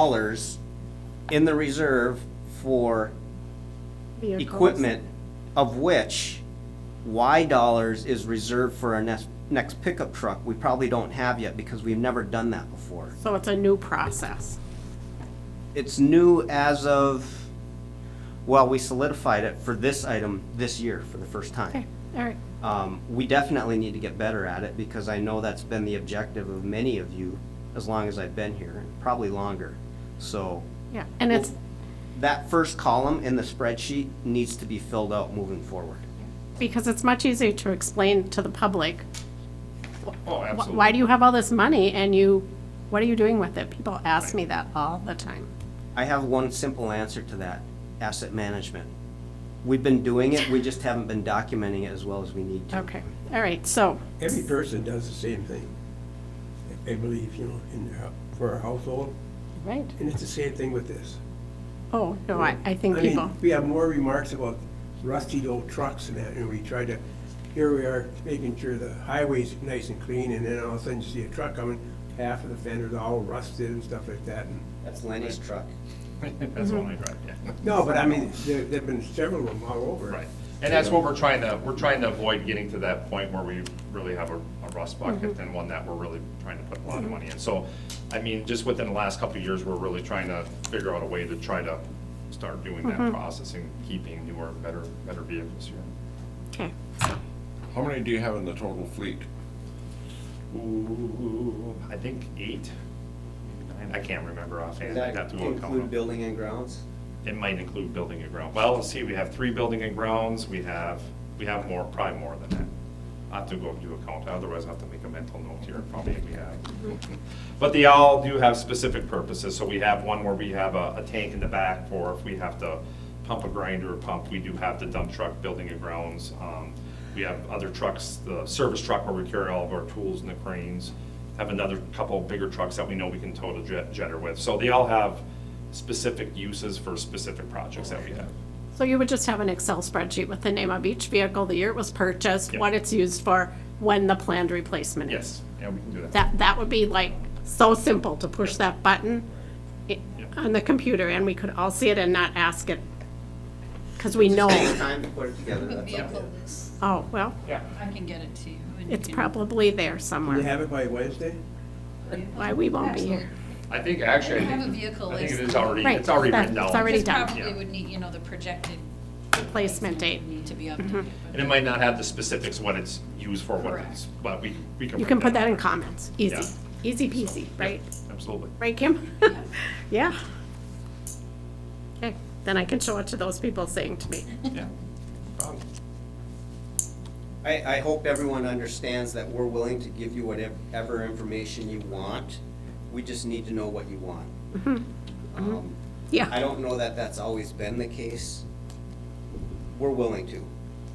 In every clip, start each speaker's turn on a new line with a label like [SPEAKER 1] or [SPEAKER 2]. [SPEAKER 1] dollars in the reserve for
[SPEAKER 2] vehicles.
[SPEAKER 1] equipment, of which Y dollars is reserved for our next, next pickup truck. We probably don't have yet because we've never done that before.
[SPEAKER 2] So it's a new process.
[SPEAKER 1] It's new as of, well, we solidified it for this item this year for the first
[SPEAKER 2] Okay,
[SPEAKER 1] time.
[SPEAKER 2] all right.
[SPEAKER 1] Um, we definitely need to get better at it because I know that's been the objective of many of you as long as I've been here, probably longer. So
[SPEAKER 2] Yeah, and it's,
[SPEAKER 1] that first column in the spreadsheet needs to be filled out moving forward.
[SPEAKER 2] because it's much easier to explain to the public,
[SPEAKER 3] Oh,
[SPEAKER 2] wh-
[SPEAKER 3] absolutely.
[SPEAKER 2] why do you have all this money and you, what are you doing with it? People ask me that all the time.
[SPEAKER 1] I have one simple answer to that, asset management. We've been doing it, we just haven't been documenting it as well as we need to.
[SPEAKER 2] Okay, all right, so,
[SPEAKER 4] Every person does the same thing. I I believe, you know, in their, for our household,
[SPEAKER 2] right,
[SPEAKER 4] and it's the same thing with this.
[SPEAKER 2] oh, no, I, I think
[SPEAKER 4] I mean,
[SPEAKER 2] people,
[SPEAKER 4] We have more remarks about rusty old trucks and that, and we try to, here we are, making sure the highway's nice and clean, and then all of a sudden you see a truck coming, half of the fender's all rusted and stuff like that. and-
[SPEAKER 1] That's Lenny's truck.
[SPEAKER 3] That's only right, yeah.
[SPEAKER 4] No, but I mean, there, there've been several of them all over.
[SPEAKER 3] Right. And that's what we're trying to, we're trying to avoid getting to that point where we really have a a rust bucket and one that we're really trying to put a lot of money in. So, I mean, just within the last couple of years, we're really trying to figure out a way to try to start doing that process and keeping newer, better, better vehicles here.
[SPEAKER 2] okay.
[SPEAKER 5] How many do you have in the total fleet?
[SPEAKER 3] Ooh, I think eight, maybe nine, I can't remember offhand. I'd have
[SPEAKER 1] That
[SPEAKER 3] to go and count them.
[SPEAKER 1] include building and grounds?
[SPEAKER 3] It might include building and ground. Well, let's see, we have three building and grounds, we have, we have more, probably more than that. I have to go do a count, otherwise I have to make a mental note here, probably we have. But they all do have specific purposes, so we have one where we have a, a tank in the back for if we have to pump a grinder or pump, we do have the dump truck, building and grounds. Um, We have other trucks, the service truck where we carry all of our tools and the cranes. Have another couple bigger trucks that we know we can tow the jet- jetter with, so they all have specific uses for specific projects that we have.
[SPEAKER 2] So you would just have an Excel spreadsheet with the name of each vehicle, the year it was purchased,
[SPEAKER 3] Yeah.
[SPEAKER 2] what it's used for, when the planned replacement is.
[SPEAKER 3] Yes, yeah, we can do that.
[SPEAKER 2] That, that would be like so simple to push that button i-
[SPEAKER 3] Yeah.
[SPEAKER 2] on the computer and we could all see it and not ask it. Because we know,
[SPEAKER 1] Time to put it together, that's all.
[SPEAKER 6] vehicle list.
[SPEAKER 2] oh, well,
[SPEAKER 3] Yeah.
[SPEAKER 6] I can get it to you. and you
[SPEAKER 2] it's
[SPEAKER 6] can-
[SPEAKER 2] probably there
[SPEAKER 4] You
[SPEAKER 2] somewhere.
[SPEAKER 4] have it by Wednesday?
[SPEAKER 2] Why we won't be here.
[SPEAKER 3] I think, actually,
[SPEAKER 6] I
[SPEAKER 3] I
[SPEAKER 6] have a
[SPEAKER 3] think,
[SPEAKER 6] vehicle
[SPEAKER 3] I think
[SPEAKER 6] list.
[SPEAKER 3] it is already,
[SPEAKER 2] Right,
[SPEAKER 3] it's already
[SPEAKER 2] that-
[SPEAKER 3] written down.
[SPEAKER 2] it's already
[SPEAKER 6] Just
[SPEAKER 2] done.
[SPEAKER 6] probably
[SPEAKER 3] Yeah.
[SPEAKER 6] would need, you know, the projected.
[SPEAKER 2] Replacement date. Mm-hmm.
[SPEAKER 6] Need to be updated. but-
[SPEAKER 3] And it might not have the specifics what it's used for, what it's,
[SPEAKER 6] Correct.
[SPEAKER 3] but we, we can.
[SPEAKER 2] You can
[SPEAKER 3] bring
[SPEAKER 2] put that in
[SPEAKER 3] up.
[SPEAKER 2] comments, easy, easy peasy, right?
[SPEAKER 3] Absolutely.
[SPEAKER 2] Right, Kim? Yeah. Okay, then I can show it to those people saying to me,
[SPEAKER 3] Yeah. Problem.
[SPEAKER 1] I, I hope everyone understands that we're willing to give you whatever information you want. We just need to know what you want. Um, I
[SPEAKER 2] yeah,
[SPEAKER 1] don't know that that's always been the case. We're willing to.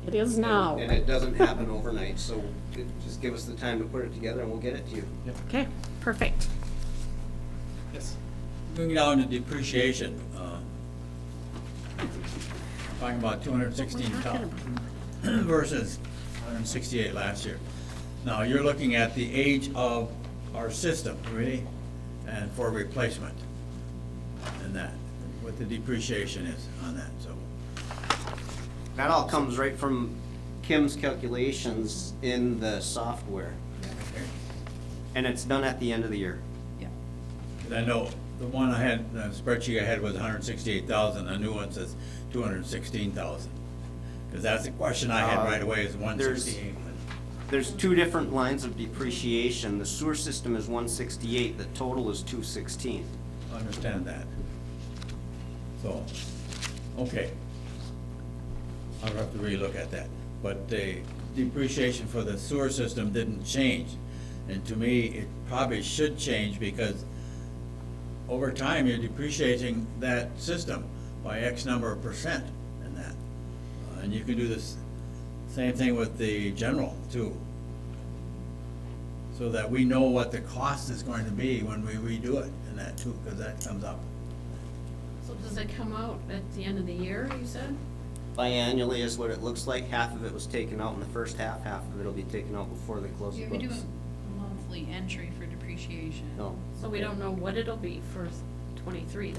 [SPEAKER 2] it is now.
[SPEAKER 1] And it doesn't happen overnight, so it- just give us the time to put it together and we'll get it to you.
[SPEAKER 2] Okay, perfect.
[SPEAKER 3] Yes.
[SPEAKER 7] Moving down to depreciation. uh, Talking about two hundred and sixteen thousand versus one hundred and sixty-eight last year. Now, you're looking at the age of our system, really, and for replacement and that, what the depreciation is on that, so.
[SPEAKER 1] That all comes right from Kim's calculations in the software,
[SPEAKER 7] okay.
[SPEAKER 1] and it's done at the end of the year.
[SPEAKER 6] Yeah.
[SPEAKER 7] 'Cause I know the one I had, the spreadsheet I had was hundred and sixty-eight thousand, the new one says two hundred and sixteen thousand. Because that's the question I had right away, is one sixty-eight.
[SPEAKER 1] There's two different lines of depreciation. The sewer system is one sixty-eight, the total is two sixteen.
[SPEAKER 7] Understand that. So, okay. I'll have to relook at that. But the depreciation for the sewer system didn't change. And to me, it probably should change because over time, you're depreciating that system by X number of percent and that. Uh, And you can do this, same thing with the general too. So that we know what the cost is going to be when we redo it and that too, because that comes up.
[SPEAKER 2] So does it come out at the end of the year, you said?
[SPEAKER 1] Biannually is what it looks like. Half of it was taken out in the first half, half of it'll be taken out before they close the
[SPEAKER 6] You would do
[SPEAKER 1] books.
[SPEAKER 6] a monthly entry for depreciation.
[SPEAKER 3] Oh.
[SPEAKER 1] No.
[SPEAKER 2] So we don't know what it'll be for
[SPEAKER 8] twenty-three